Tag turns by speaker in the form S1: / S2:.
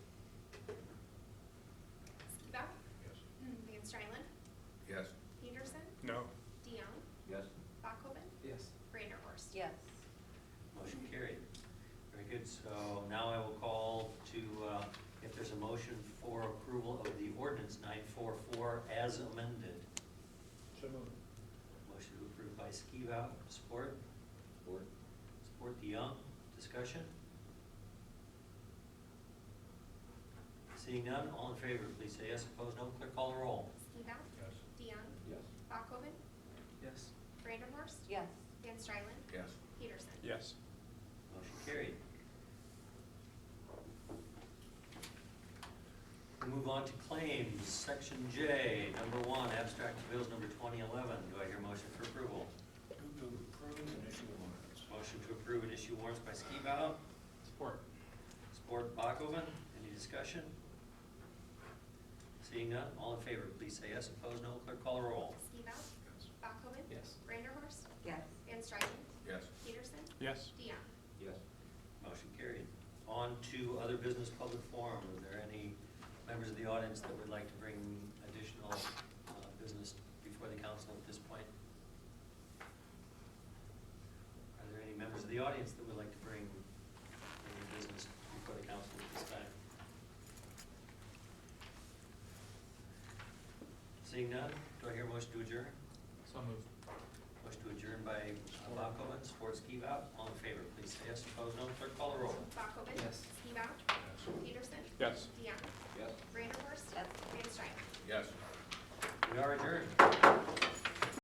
S1: mm,
S2: uh, motion for approval of the ordinance nine four four as amended.
S3: So moved.
S2: Motion approved by Skivow, support,
S4: Or
S2: support DeYoung, discussion? Seeing none, all in favor, please say yes, opposed no, clerk call the roll.
S1: Skibout.
S3: Yes.
S1: DeYoung.
S4: Yes.
S1: Bachoven.
S5: Yes.
S1: Vanderhorst.
S6: yes,
S1: Van Strylen.
S4: Yes.
S1: Peterson.
S3: Yes.
S2: Motion carried. We Move on to claims, section J, number one, abstract of bills number twenty eleven, do I hear motion for approval?
S3: Move to approve and issue warrants.
S2: Motion to approve and issue warrants by Skibout,
S5: Support.
S2: support Bachoven, any discussion? Seeing none, all in favor, please say yes, opposed no, clerk call the roll.
S1: Skibout.
S3: Yes.
S1: Bachoven.
S5: Yes.
S1: Vanderhorst.
S6: yes,
S1: Van Strylen.
S4: Yes.
S1: Peterson.
S5: Yes.
S1: DeYoung.
S4: Yes.
S2: Motion carried. On to other business public forum. Are there any members of the audience that would like to bring additional uh, business before the council at this point? Are there any members of the audience that would like to bring any business before the council at this time? Seeing none, do I hear a motion to adjourn?
S5: So moved.
S2: Motion to adjourn by uh, Bakoven, support Skivout. All in favor, please say yes. Opposed, no. Clerk call the roll.
S1: Bachoven.
S5: Yes.
S1: Skibout. Peterson.
S3: Yes.
S1: DeYoung.
S4: Yes.
S1: Vanderhorst.
S6: yes.
S1: Van Strylen.
S4: Yes.
S2: We are adjourned.